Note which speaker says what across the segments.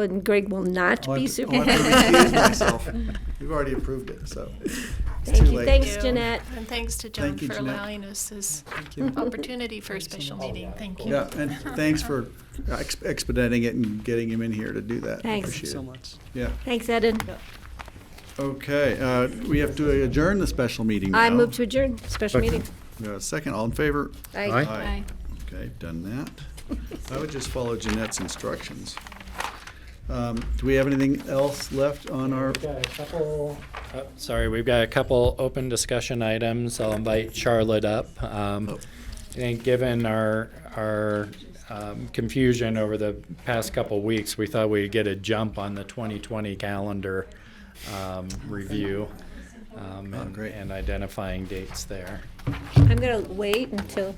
Speaker 1: and Greg will not
Speaker 2: I'll
Speaker 1: be
Speaker 2: have to- I'll have
Speaker 1: superintendent.
Speaker 2: to recuse myself. We've already approved it, so. it's
Speaker 1: Thank
Speaker 2: too
Speaker 1: you.
Speaker 2: late.
Speaker 1: Thanks, Jeanette.
Speaker 3: And thanks to John
Speaker 2: Thank you,
Speaker 3: for
Speaker 2: Jeanette.
Speaker 3: allowing us this
Speaker 2: Thank you.
Speaker 3: opportunity for a special meeting. Thank you.
Speaker 2: Yeah, and thanks for ex- expediting it and getting him in here to do that.
Speaker 1: Thanks.
Speaker 2: Appreciate it.
Speaker 4: so much.
Speaker 2: Yeah,
Speaker 1: Thanks, Eden.
Speaker 2: okay, uh, we have to adjourn the special meeting
Speaker 1: I
Speaker 2: now.
Speaker 1: move to adjourn special meeting.
Speaker 2: We have a Second, all in favor?
Speaker 1: Aye.
Speaker 2: Aye. Okay, done that. I would just follow Jeanette's instructions. Um, Do we have anything else left on our,
Speaker 5: We've got a couple, oh, sorry, we've got a couple open discussion items. I'll invite Charlotte up. Um,
Speaker 2: Oh.
Speaker 5: I think given our, our um, confusion over the past couple weeks, we thought we'd get a jump on the 2020 calendar um, review um,
Speaker 2: Oh,
Speaker 5: and-
Speaker 2: great.
Speaker 5: and identifying dates there.
Speaker 1: I'm gonna wait until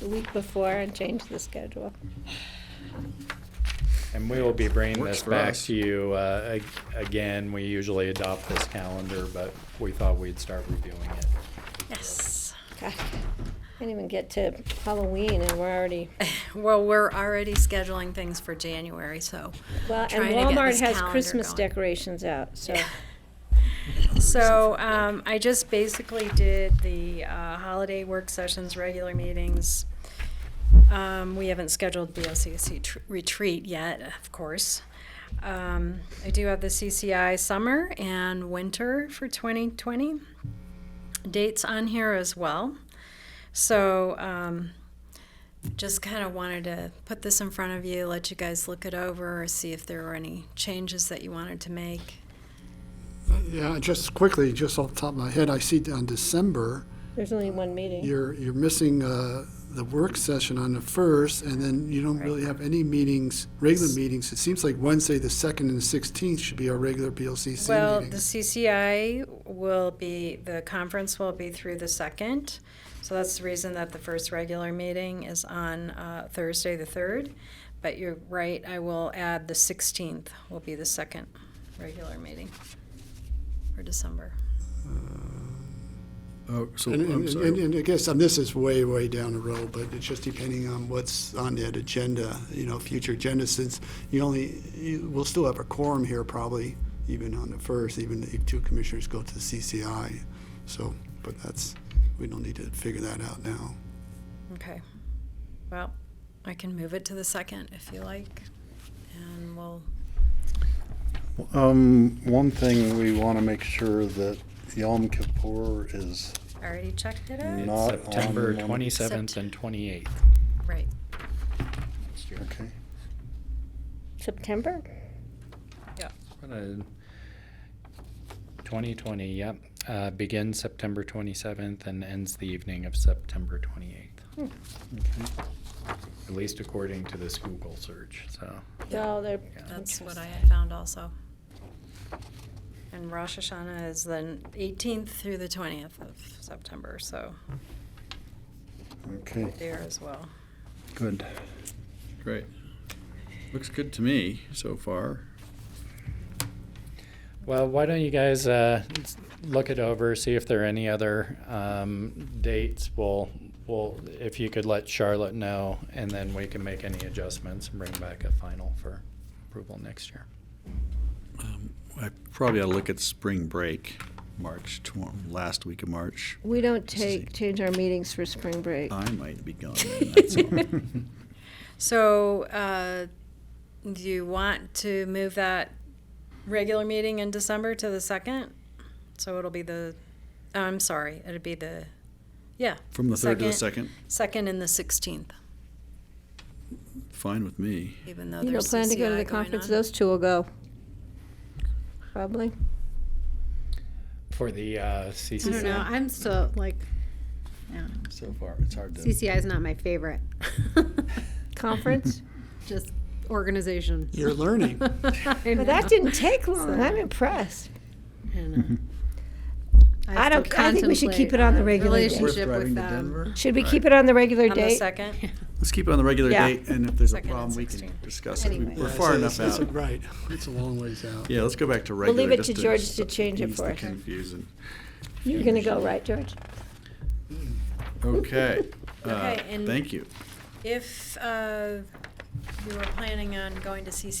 Speaker 1: the week before and change the schedule.
Speaker 5: And we will be bringing
Speaker 2: Works
Speaker 5: this
Speaker 2: for
Speaker 5: back
Speaker 2: us.
Speaker 5: to you uh, ag- again. We usually adopt this calendar, but we thought we'd start reviewing it.
Speaker 3: Yes.
Speaker 1: God, I didn't even get to Halloween and we're already,
Speaker 6: Well, we're already scheduling things for January, so.
Speaker 1: well, and
Speaker 6: trying to get
Speaker 1: Walmart
Speaker 6: this
Speaker 1: has
Speaker 6: calendar
Speaker 1: Christmas
Speaker 6: going.
Speaker 1: decorations out, so.
Speaker 6: So um, I just basically did the uh, holiday work sessions, regular meetings. Um, We haven't scheduled BLCC E tr- retreat yet, of course. Um, I do have the CCI summer and winter for 2020 dates on here as well. So um, just kind of wanted to put this in front of you, let you guys look it over, see if there were any changes that you wanted to make.
Speaker 7: Yeah, just quickly, just off the top of my head, I see on December,
Speaker 1: There's only one meeting.
Speaker 7: you're, you're missing uh, the work session on the first, and then you don't really have any meetings, regular meetings. It seems like Wednesday, the second and the sixteenth should be our regular BLCC
Speaker 6: Well, the
Speaker 7: meetings.
Speaker 6: CCI will be, the conference will be through the second. So that's the reason that the first regular meeting is on uh, Thursday, the third. But you're right, I will add the sixteenth will be the second regular meeting for December.
Speaker 7: Uh,
Speaker 2: oh, so,
Speaker 7: And,
Speaker 2: I'm
Speaker 7: and- and,
Speaker 2: sorry.
Speaker 7: and I guess, um this is way, way down the road, but it's just depending on what's on that agenda, you know, future agenda, since you only, you, we'll still have a quorum here probably, even on the first, even if two commissioners go to the CCI. So, but that's, we don't need to figure that out now.
Speaker 6: Okay. Well, I can move it to the second if you like. And we'll,
Speaker 8: Um, one thing we want to make sure that Yom Kippur is
Speaker 6: I already checked it out.
Speaker 8: Not on
Speaker 5: September
Speaker 8: one-
Speaker 5: 27th and 28th.
Speaker 6: Right.
Speaker 8: okay.
Speaker 1: September?
Speaker 5: What a- 2020, yep. Uh, Begins September 27th and ends the evening of September 28th.
Speaker 1: Hmm.
Speaker 8: Hmm.
Speaker 5: At least according to this Google search, so.
Speaker 1: No, they're.
Speaker 6: That's what I
Speaker 1: interesting.
Speaker 6: had found also. And Rosh Hashanah is then 18th through the 20th of September, so
Speaker 8: Okay.
Speaker 6: there as well.
Speaker 8: Good.
Speaker 2: great. Looks good to me so far.
Speaker 5: Well, why don't you guys uh, s- look it over, see if there are any other um, dates? We'll, we'll, if you could let Charlotte know, and then we can make any adjustments and bring back a final for approval next year.
Speaker 2: Um, I probably ought to look at spring break, March, tw- last week of March.
Speaker 1: We don't
Speaker 2: is
Speaker 1: take, change our meetings for spring break.
Speaker 2: I might be gone then, that's all.
Speaker 6: So uh, do you want to move that regular meeting in December to the 2nd? So it'll be the, oh, I'm sorry, it'd be the, yeah,
Speaker 2: From the third to the second,
Speaker 6: 2nd and the 16th,
Speaker 2: fine with me.
Speaker 6: even though
Speaker 1: You don't
Speaker 6: there's
Speaker 1: plan to go to the
Speaker 6: CCI going
Speaker 1: conference,
Speaker 6: on.
Speaker 1: those two will go. Probably.
Speaker 5: For the uh,
Speaker 9: I don't know.
Speaker 5: CCC,
Speaker 9: I'm still like
Speaker 2: So far, it's hard
Speaker 9: CCI is not my favorite.
Speaker 1: Conference?
Speaker 9: Just organization.
Speaker 7: You're learning.
Speaker 1: Well, that didn't take long. I'm impressed. I don't- I think we should keep it on the regular day.
Speaker 2: Worth
Speaker 9: relationship
Speaker 2: driving
Speaker 9: with
Speaker 2: to
Speaker 9: them.
Speaker 2: Denver?
Speaker 1: Should we keep it on the regular
Speaker 6: On the
Speaker 1: date?
Speaker 6: 2nd?
Speaker 2: Let's keep it on the regular
Speaker 1: Yeah.
Speaker 2: date, and if there's a
Speaker 6: Second and
Speaker 2: problem, we can
Speaker 6: 16.
Speaker 2: discuss it. We-
Speaker 1: Anyway.
Speaker 2: We're far
Speaker 7: Yeah,
Speaker 2: enough
Speaker 7: so it's-
Speaker 2: out.
Speaker 7: it's- Right, it's a long ways out.
Speaker 2: Yeah, let's go back to
Speaker 1: We'll
Speaker 2: regular.
Speaker 1: leave it
Speaker 2: just
Speaker 1: to George to change it
Speaker 2: ease
Speaker 1: for
Speaker 2: the
Speaker 1: us.
Speaker 2: Confusion.
Speaker 1: You're gonna go, right, George?
Speaker 2: Okay. Uh,
Speaker 6: Okay, and-
Speaker 2: Thank you.
Speaker 6: If uh, we were planning on going to CC